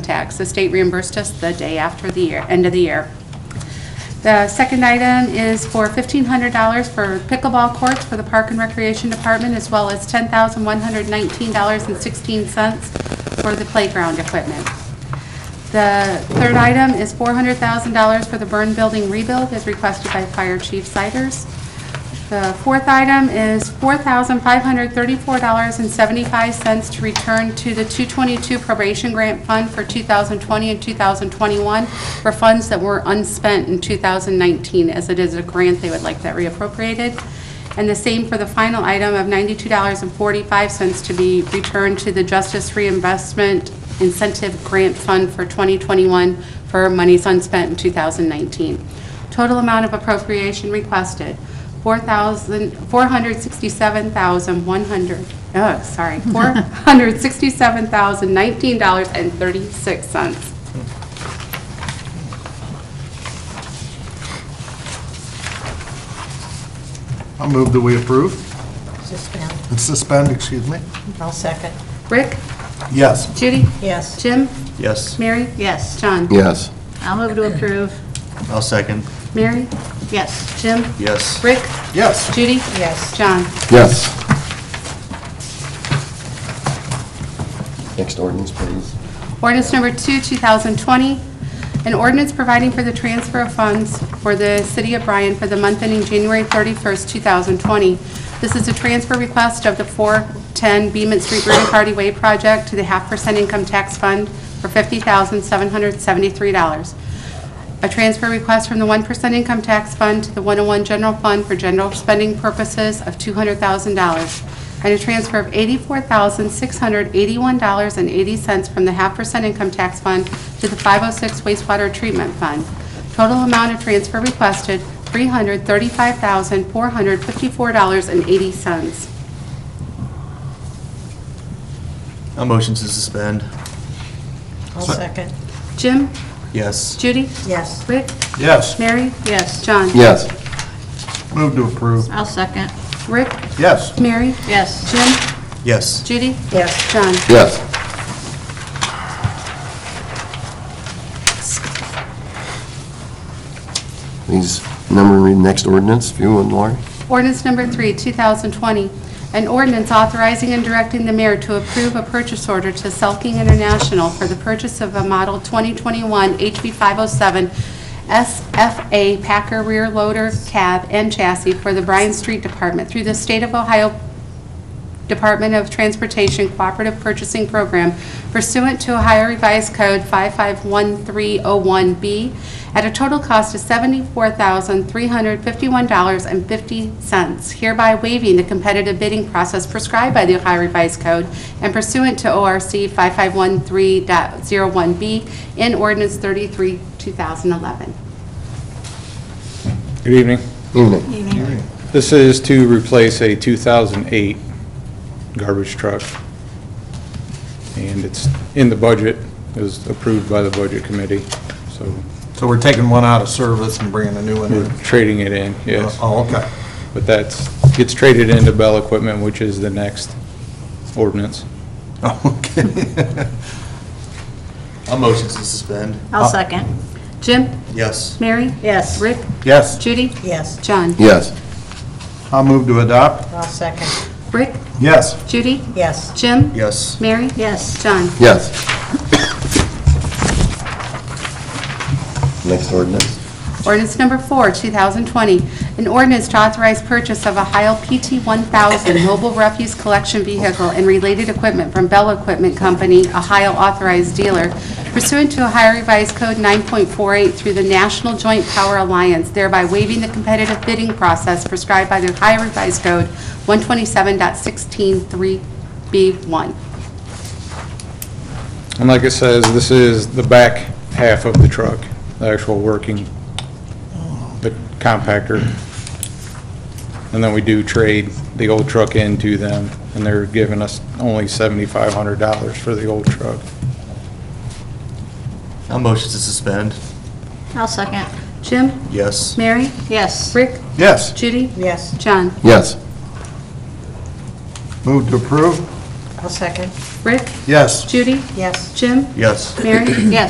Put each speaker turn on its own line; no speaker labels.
tax. The state reimbursed us the day after the year, end of the year. The second item is for $1,500 for pickleball courts for the Park and Recreation Department, as well as $10,119.16 for the playground equipment. The third item is $400,000 for the burn building rebuild, as requested by Fire Chief Siders. The fourth item is $4,534.75 to return to the 222 probation grant fund for 2020 and 2021 for funds that were unspent in 2019, as it is a grant, they would like that reappropriated. And the same for the final item of $92.45 to be returned to the Justice Reinvestment Incentive Grant Fund for 2021 for monies unspent in 2019. Total amount of appropriation requested, 4,000 467,100, oh, sorry, $467,019.36.
I'll move that we approve
Suspend.
and suspend, excuse me.
I'll second.
Rick?
Yes.
Judy?
Yes.
Jim?
Yes.
Mary?
Yes.
John?
Yes.
I'll move to approve.
I'll second.
Mary?
Yes.
Jim?
Yes.
Rick?
Yes.
Judy?
Yes.
John?
Yes. Next ordinance, please.
Ordinance number two, 2020, an ordinance providing for the transfer of funds for the city of Bryan for the month ending January 31st, 2020. This is a transfer request of the 410 Beaman Street Green Party Way project to the half percent income tax fund for $50,773. A transfer request from the 1% income tax fund to the 101 general fund for general spending purposes of $200,000, and a transfer of $84,681.80 from the half percent income tax fund to the 506 wastewater treatment fund. Total amount of transfer requested, $335,454.80.
A motion to suspend.
I'll second.
Jim?
Yes.
Judy?
Yes.
Rick?
Yes.
Mary?
Yes.
John?
Yes.
Move to approve.
I'll second.
Rick?
Yes.
Mary?
Yes.
Jim?
Yes.
Judy?
Yes.
John?
Yes. Please, number, read next ordinance, if you would, Lori.
Ordinance number three, 2020, an ordinance authorizing and directing the mayor to approve a purchase order to Selking International for the purchase of a Model 2021 HB 507 SFA Packer Rear Loader Cab and Chassis for the Bryan Street Department through the State of Ohio Department of Transportation Cooperative Purchasing Program pursuant to Ohio Revised Code 551301B at a total cost of $74,351.50, hereby waiving the competitive bidding process prescribed by the Ohio Revised Code and pursuant to ORC 5513.01B in Ordinance 33, 2011.
Good evening.
Evening.
This is to replace a 2008 garbage truck, and it's in the budget, it was approved by the Budget Committee, so
So we're taking one out of service and bringing a new one
we're
in?
trading it in, yes.
Oh, okay.
But that's, gets traded into Bell Equipment, which is the next ordinance.
Oh, Okay.
A motion to suspend. Uh,
I'll second.
Jim?
Yes.
Mary?
Yes.
Rick?
Yes.
Judy?
Yes.
John?
Yes.
I'll move to adopt.
I'll second.
Rick?
Yes.
Judy?
Yes.
Jim?
Yes.
Mary?
Yes.
John?
Yes. Next ordinance.
Ordinance number four, 2020, an ordinance to authorize purchase of a Heil PT-1000 mobile refuse collection vehicle and related equipment from Bell Equipment Company, a Heil authorized dealer, pursuant to Ohio Revised Code 9.48 through the National Joint Power Alliance, thereby waiving the competitive bidding process prescribed by the Ohio Revised Code 127.163B1.
And like it says, this is the back half of the truck, the actual working, the compactor. And then we do trade the old truck in to them, and they're giving us only $7,500 for the old truck.
A motion to suspend.
I'll second.
Jim?
Yes.
Mary?
Yes.
Rick?
Yes.
Judy?
Yes.
John?
Yes.
Move to approve.
I'll second.
Rick?
Yes.
Judy?
Yes.
Jim?
Yes.
Mary?
Yes.